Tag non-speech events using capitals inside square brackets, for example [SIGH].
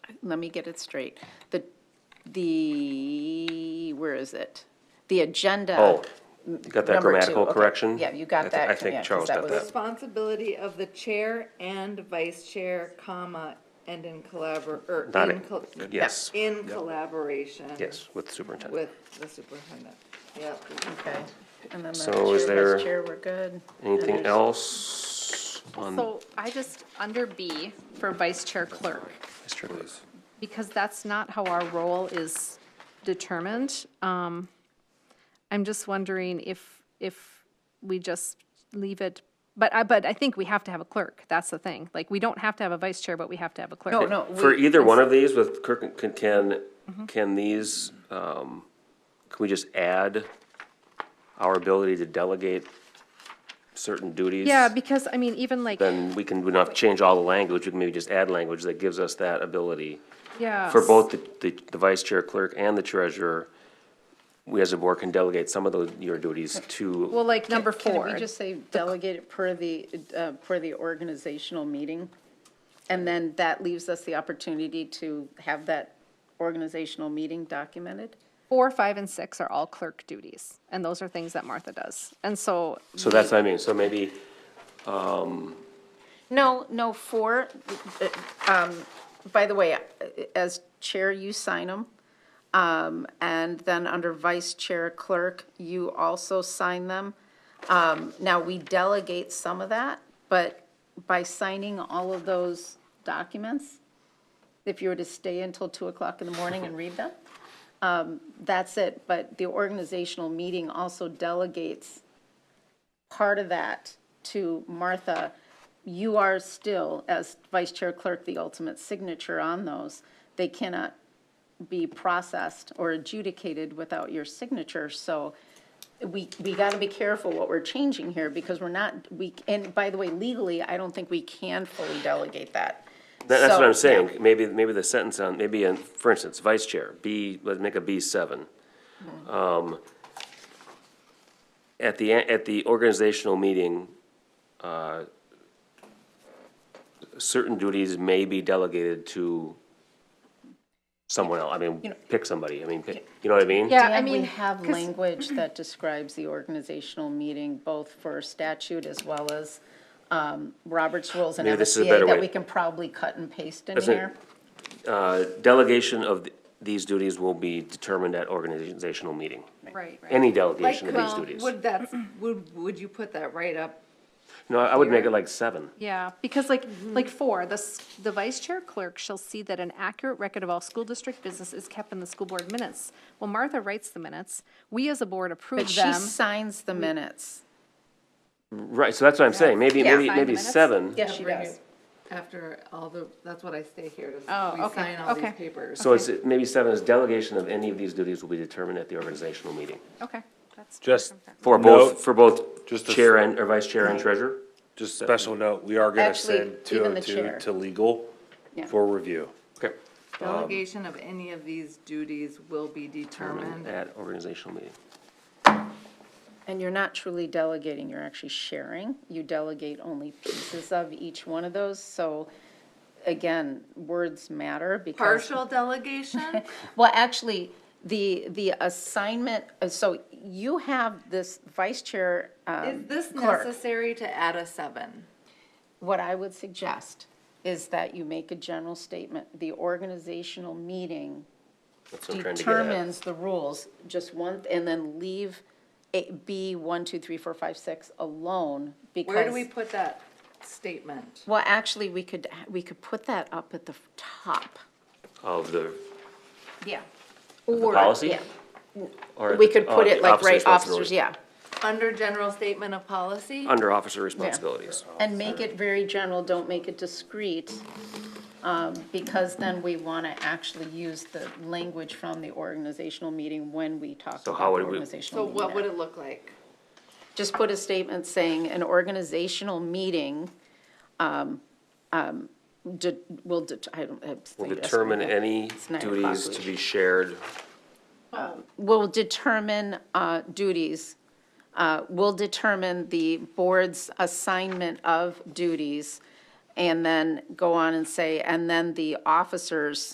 let me get it straight. The, the, where is it? The agenda. Oh, you got that Uh, number two, grammatical okay. correction? Yeah, you got I thi- that, I think yeah, 'cause Charles that got was- that. Responsibility of the chair and vice chair, comma, and in collabor, or Not in. it. col- Yes. In collaboration. Yes, with superintendent. With the superintendent, yep. Okay. And then the So is chair, there vice chair, we're good. Anything else on So I just, under B, for vice chair clerk, Mr. Clerk? because that's not how our role is determined, um, I'm just wondering if, if we just leave it, but I, but I think we have to have a clerk, that's the thing. Like, we don't have to have a vice chair, but we have to have a clerk. No, Oh, no, For we, Mm-hmm. either one of these with, clerk- can- can, can these, um, can we just add our ability to delegate certain duties? Yeah, because, I mean, even like, Then we can, we don't have to change all the language, we can maybe just add language that gives us that ability. yeah. For both the- the, the vice chair clerk and the treasurer, we as a board can delegate some of those, your duties to, Well, like number can four. we just say delegate it per the, uh, per the organizational meeting? And then that leaves us the opportunity to have that organizational meeting documented? Four, five, and six are all clerk duties, and those are things that Martha does. And so, so that's what I mean, so maybe, No, no, four, uh, um, by the way, as chair, you sign them. Um, and then under vice chair clerk, you also sign them. Um, now, we delegate some of that, but by signing all of those documents, if you were to stay until two o'clock in the morning and read them, um, that's it. But the organizational meeting also delegates part of that to Martha, you are still, as vice chair clerk, the ultimate signature on those. They cannot be processed or adjudicated without your signature, so we, we gotta be careful what we're changing here, because we're not, we, and by the way, legally, I don't think we can fully delegate that. That- That's what I'm So, yeah. saying, maybe, maybe the sentence on, maybe, in- for instance, vice chair, B, let's make a B seven. Mm-hmm. Um, At the, en- at the organizational meeting, uh, certain duties may be delegated to someone else, I mean, pick somebody, I mean, pick- you know what I mean? yeah, I And we mean, have language that describes the organizational meeting, both for statute as well as um, Robert's rules and Maybe this is a MSBA, better that way. we can probably cut and paste in That's it. here. Uh, Delegation of th- these duties will be determined at organizational meeting, right, right. any Like, delegation of these um, duties. Would that, would, would you put that right up? No, I would make it like seven. Yeah, because like, like four, the, s- the vice chair clerk shall see that an accurate record of all school district business is kept in the school board minutes. Well, Martha writes the minutes, we as a board But approve she them. signs the minutes. Right, so that's what I'm saying, maybe, Yeah. maybe, Five maybe minutes? seven. Yes, she does. After all the, that's what I stay here to, Oh, we okay, sign all these okay. papers. So it's, maybe seven is delegation of any of these duties will be determined at the organizational meeting. Okay, that's. Just, For Note- both, for both Just a- chair and, or vice chair and treasurer? just special note, we are gonna Actually, send two even oh the chair. two to legal Yeah. for review. Okay. um, Delegation of any of these duties will be determined. At organizational meeting. And you're not truly delegating, you're actually sharing. You delegate only pieces of each one of those, so again, words matter because. [LAUGHS] Partial delegation? Well, actually, the, the assignment, uh, so you have this vice chair. um, Is this clerk. necessary to add a seven? What I would suggest is that you make a general statement. The organizational meeting That's what I'm trying to get at. determines the rules, just one, and then leave A- B, one, two, three, four, five, six alone because. Where do we put that statement? Well, actually, we could, we could put that up at the top. Of the, Yeah. the policy? or We the- could oh, put it like officer right, responsibility. officers, yeah. Under general statement of policy? Under officer responsibilities. And make it very general, don't make it discreet, um, because then we want to actually use the language from the organizational meeting when we talk So about how the would we- organizational So meeting. what would minutes. it look like? Just put a statement saying an organizational meeting um, um, de- will, det- I don't. I Will think that's- determine any nine o'clock, duties we to should- be shared. will determine uh, duties, uh, will determine the board's assignment of duties, and then go on and say, and then the officers